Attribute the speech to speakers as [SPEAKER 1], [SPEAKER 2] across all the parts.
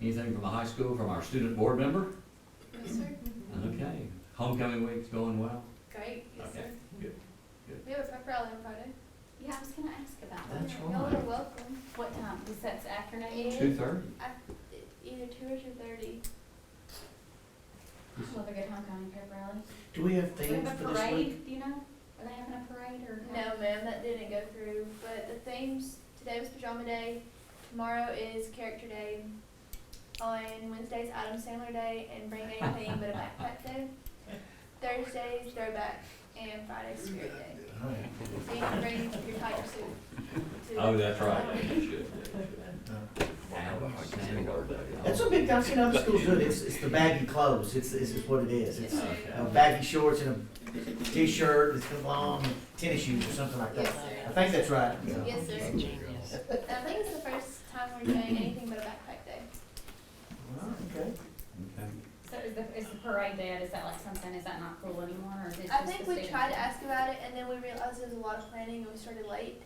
[SPEAKER 1] Anything from the high school, from our student board member?
[SPEAKER 2] Yes, sir.
[SPEAKER 1] Okay, homecoming week's going well?
[SPEAKER 2] Great, yes,
[SPEAKER 1] Okay.
[SPEAKER 2] sir.
[SPEAKER 1] Good, good.
[SPEAKER 2] We have a pep rally on Friday.
[SPEAKER 3] Yeah, I was gonna ask about that.
[SPEAKER 1] That's
[SPEAKER 2] Y'all are
[SPEAKER 1] right.
[SPEAKER 2] welcome.
[SPEAKER 3] What time? Is that afternoon?
[SPEAKER 2] Yeah.
[SPEAKER 1] Two thirty?
[SPEAKER 2] E- Either two or two thirty.
[SPEAKER 3] Another good homecoming pep rally.
[SPEAKER 4] Do we have
[SPEAKER 3] Do we
[SPEAKER 4] themes
[SPEAKER 3] have a
[SPEAKER 4] for this week?
[SPEAKER 3] parade, do you know? Are they having a parade or?
[SPEAKER 2] No, ma'am, that didn't go through, but the themes, today was pajama day, tomorrow is character day, on Wednesday's Adam Sandler day, and bring anything but a backpack day, Thursday's throwback, and Friday's spirit day.
[SPEAKER 5] Oh,
[SPEAKER 4] Alright.
[SPEAKER 2] So you can bring your tiger suit. to-
[SPEAKER 1] Oh, that's right.
[SPEAKER 4] That's what big, I've seen other schools do it, it's, it's the baggy clothes, it's, it's just what it is,
[SPEAKER 2] Yes,
[SPEAKER 4] it's
[SPEAKER 2] sir.
[SPEAKER 4] uh, baggy shorts and a t-shirt, it's long, tennis shoes or something like
[SPEAKER 2] Yes,
[SPEAKER 4] that.
[SPEAKER 2] sir.
[SPEAKER 4] I think that's right.
[SPEAKER 2] Yes, sir.
[SPEAKER 5] Genius.
[SPEAKER 2] And I think it's the first time we're doing anything but a backpack day.
[SPEAKER 4] Alright, okay.
[SPEAKER 3] So is the, is the parade dead? Is that like something, is that not cool anymore or is it just?
[SPEAKER 2] I
[SPEAKER 3] the
[SPEAKER 2] think we
[SPEAKER 3] students?
[SPEAKER 2] tried to ask about it, and then we realized there was a lot of planning, and we started late.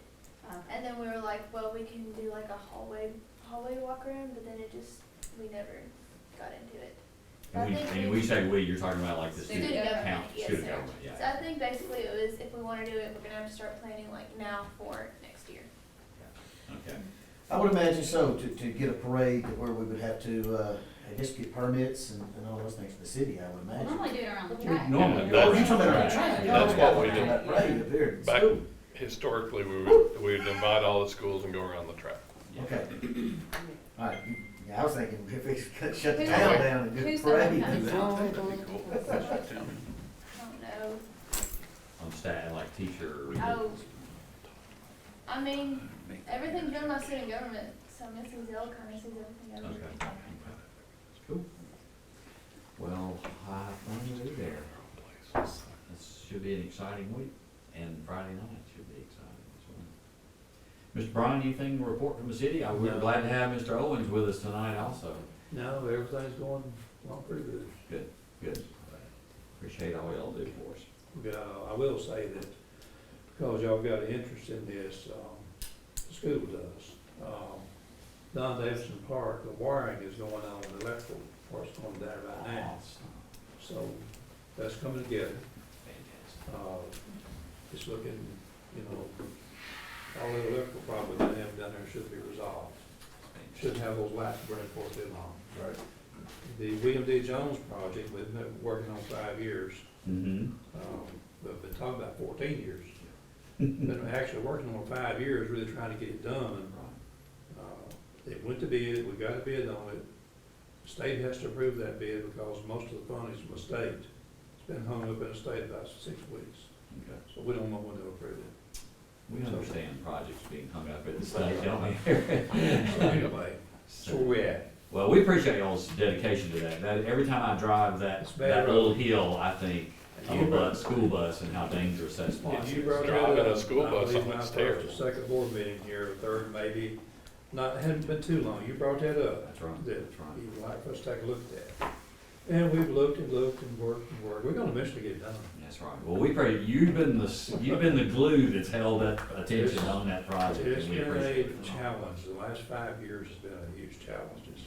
[SPEAKER 3] Oh,
[SPEAKER 2] And then we were like, well, we can do like a hallway hallway walk around, but then it just we never got into it.
[SPEAKER 1] And we, and we say we, you're talking about like the
[SPEAKER 2] Student
[SPEAKER 1] student
[SPEAKER 3] Student
[SPEAKER 2] government,
[SPEAKER 1] count,
[SPEAKER 2] yes,
[SPEAKER 1] student
[SPEAKER 2] sir.
[SPEAKER 1] government,
[SPEAKER 2] So
[SPEAKER 1] yeah.
[SPEAKER 2] I think basically it was if we want to do it, we're gonna have to start planning like now for next year.
[SPEAKER 1] Okay,
[SPEAKER 4] I would imagine so, to, to get a parade where we would have to, uh, I guess get permits and, and all those things for the city, I would
[SPEAKER 3] we
[SPEAKER 4] imagine.
[SPEAKER 3] Normally do it around the
[SPEAKER 4] We
[SPEAKER 3] track.
[SPEAKER 1] normally do
[SPEAKER 4] Oh,
[SPEAKER 1] it
[SPEAKER 4] you talking about
[SPEAKER 1] Right.
[SPEAKER 4] a track? Oh,
[SPEAKER 5] That's what we
[SPEAKER 4] Yeah,
[SPEAKER 3] do.
[SPEAKER 4] Parade up here at
[SPEAKER 5] Back-
[SPEAKER 4] school.
[SPEAKER 5] Historically, we would, we would invite all the schools and go around the track.
[SPEAKER 4] Okay. All right, yeah, I was thinking if we could shut the
[SPEAKER 3] Who's
[SPEAKER 4] town
[SPEAKER 3] that?
[SPEAKER 4] down and
[SPEAKER 3] Who's
[SPEAKER 4] just
[SPEAKER 3] the
[SPEAKER 4] parade.
[SPEAKER 3] homecoming?
[SPEAKER 2] I don't know.
[SPEAKER 1] on staff, like teacher.
[SPEAKER 2] Oh. I mean, everything's done by student government, so Mrs. L kind of sees everything over.
[SPEAKER 1] Okay. Cool. Well, I think we're there. This should be an exciting week, and Friday night should be exciting as well. Mr. Bryan, anything to report from the city? I- We're
[SPEAKER 6] No.
[SPEAKER 1] glad to have Mr. Owens with us tonight also.
[SPEAKER 6] No, everything's going along pretty good.
[SPEAKER 1] Good. Appreciate all y'all do for us.
[SPEAKER 6] Uh, I will say that because y'all got an interest in this, um, the school does. Um, Don Davidson Park, the wiring is going on, the electrical part's going there right now. So that's coming together.
[SPEAKER 1] Fantastic.
[SPEAKER 6] Uh, It's looking, you know, all the electrical problems that they have down there should be resolved. Shouldn't have those lights burning for too long.
[SPEAKER 1] Right.
[SPEAKER 6] The William D. Jones project, we've been working on five years.
[SPEAKER 1] Mm-hmm.
[SPEAKER 6] Um, We've been talking about fourteen years. Been actually working on it five years, really trying to get it done. Uh, It went to bid, we got a bid on it. State has to approve that bid because most of the funding is from the state. It's been hung up in the state about six weeks,
[SPEAKER 1] Okay.
[SPEAKER 6] so we don't know when they'll approve it.
[SPEAKER 1] We understand projects being hung up at the
[SPEAKER 6] Right.
[SPEAKER 1] state, don't we?
[SPEAKER 6] So anyway, so where we at?
[SPEAKER 1] Well, we appreciate y'all's dedication to that. That, every time I drive that,
[SPEAKER 6] It's bad
[SPEAKER 1] that
[SPEAKER 6] road.
[SPEAKER 1] little hill, I think of
[SPEAKER 6] You
[SPEAKER 1] a
[SPEAKER 6] brought-
[SPEAKER 1] bus, school bus and how dangerous that spot
[SPEAKER 6] If you
[SPEAKER 1] is.
[SPEAKER 6] brought it
[SPEAKER 5] Driving a
[SPEAKER 6] up,
[SPEAKER 5] school
[SPEAKER 6] I
[SPEAKER 5] bus
[SPEAKER 6] believe
[SPEAKER 5] on
[SPEAKER 6] my
[SPEAKER 5] it's
[SPEAKER 6] first or
[SPEAKER 5] terrible.
[SPEAKER 6] Second board meeting here, or third maybe, not, hadn't been too long, you brought that up.
[SPEAKER 1] That's right,
[SPEAKER 6] that
[SPEAKER 1] that's right.
[SPEAKER 6] you'd like for us to take a look at that. And we've looked and looked and worked and worked, we're gonna eventually get it done.
[SPEAKER 1] That's right. Well, we pray, you've been the, s- you've been the glue that's held that attention on that project
[SPEAKER 6] It's
[SPEAKER 1] and we
[SPEAKER 6] been
[SPEAKER 1] appreciate
[SPEAKER 6] a
[SPEAKER 1] it.
[SPEAKER 6] challenge, the last five years has been a huge challenge, just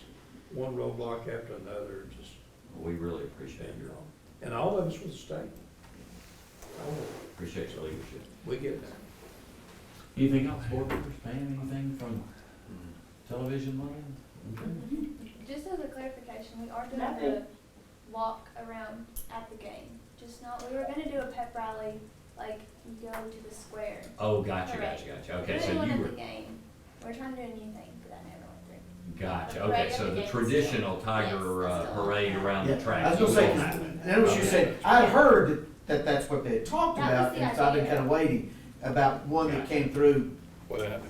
[SPEAKER 6] one roadblock after another, just,
[SPEAKER 1] We really appreciate
[SPEAKER 6] you
[SPEAKER 1] your,
[SPEAKER 6] know. And all of us with the state. All of us.
[SPEAKER 1] appreciate your leadership.
[SPEAKER 6] Oh, We get there.
[SPEAKER 1] Anything else, board members, Pam, anything from television land? Okay.
[SPEAKER 2] Just as a clarification, we are doing
[SPEAKER 3] Nothing.
[SPEAKER 2] the walk around at the game, just not, we were gonna do a pep rally, like, you go to the square.
[SPEAKER 1] Oh, gotcha,
[SPEAKER 2] Correct.
[SPEAKER 1] gotcha, gotcha. Okay,
[SPEAKER 2] We're
[SPEAKER 1] so
[SPEAKER 2] doing
[SPEAKER 1] you
[SPEAKER 2] one
[SPEAKER 1] were,
[SPEAKER 2] at the game, we're trying to do a new thing, but that never went through.
[SPEAKER 1] gotcha,
[SPEAKER 2] the
[SPEAKER 1] okay,
[SPEAKER 2] parade
[SPEAKER 1] so
[SPEAKER 2] of
[SPEAKER 1] the
[SPEAKER 2] the
[SPEAKER 1] traditional
[SPEAKER 2] Yes,
[SPEAKER 1] tiger
[SPEAKER 2] that's
[SPEAKER 1] uh,
[SPEAKER 2] still
[SPEAKER 1] parade
[SPEAKER 2] happening.
[SPEAKER 1] around the
[SPEAKER 4] Yeah,
[SPEAKER 1] track.
[SPEAKER 4] I was gonna
[SPEAKER 1] will
[SPEAKER 4] say, 'cause
[SPEAKER 1] happen.
[SPEAKER 4] That was you
[SPEAKER 1] Okay.
[SPEAKER 4] said, I had heard that that's what they had talked
[SPEAKER 2] That was
[SPEAKER 4] about,
[SPEAKER 2] the
[SPEAKER 4] and so I've been
[SPEAKER 2] idea.
[SPEAKER 4] kinda waiting about one that
[SPEAKER 1] Gotcha.
[SPEAKER 4] came through.
[SPEAKER 5] Well, that-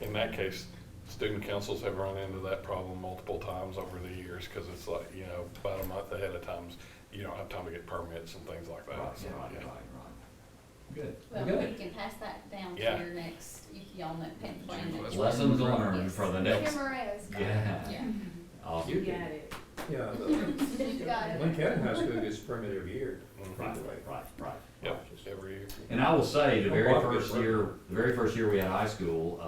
[SPEAKER 5] in that case, student councils have run into that problem multiple times over the years, because it's like, you know, about a month ahead of times, you don't have time to get permits and things like
[SPEAKER 1] Right,
[SPEAKER 5] that.
[SPEAKER 1] right,
[SPEAKER 5] so,
[SPEAKER 1] right,
[SPEAKER 5] yeah.
[SPEAKER 1] right. Good,
[SPEAKER 3] Well,
[SPEAKER 1] good.
[SPEAKER 3] we can pass that down to
[SPEAKER 5] Yeah.
[SPEAKER 3] your next, if y'all know, pen plan. that you-
[SPEAKER 1] Lessons learned for the
[SPEAKER 2] Kim
[SPEAKER 1] next,
[SPEAKER 2] Moranis got it.
[SPEAKER 1] yeah.
[SPEAKER 3] Yeah.
[SPEAKER 1] Awesome.
[SPEAKER 7] You got it.
[SPEAKER 6] Yeah, the
[SPEAKER 2] You got it.
[SPEAKER 6] Lincoln County High School gets permit every year.
[SPEAKER 5] Mhm.
[SPEAKER 1] Right, right, right.
[SPEAKER 5] Yep, every year.
[SPEAKER 1] And I will say, the
[SPEAKER 6] Oh,
[SPEAKER 1] very
[SPEAKER 6] wow, good
[SPEAKER 1] first
[SPEAKER 6] work.
[SPEAKER 1] year, the very first year we had high school,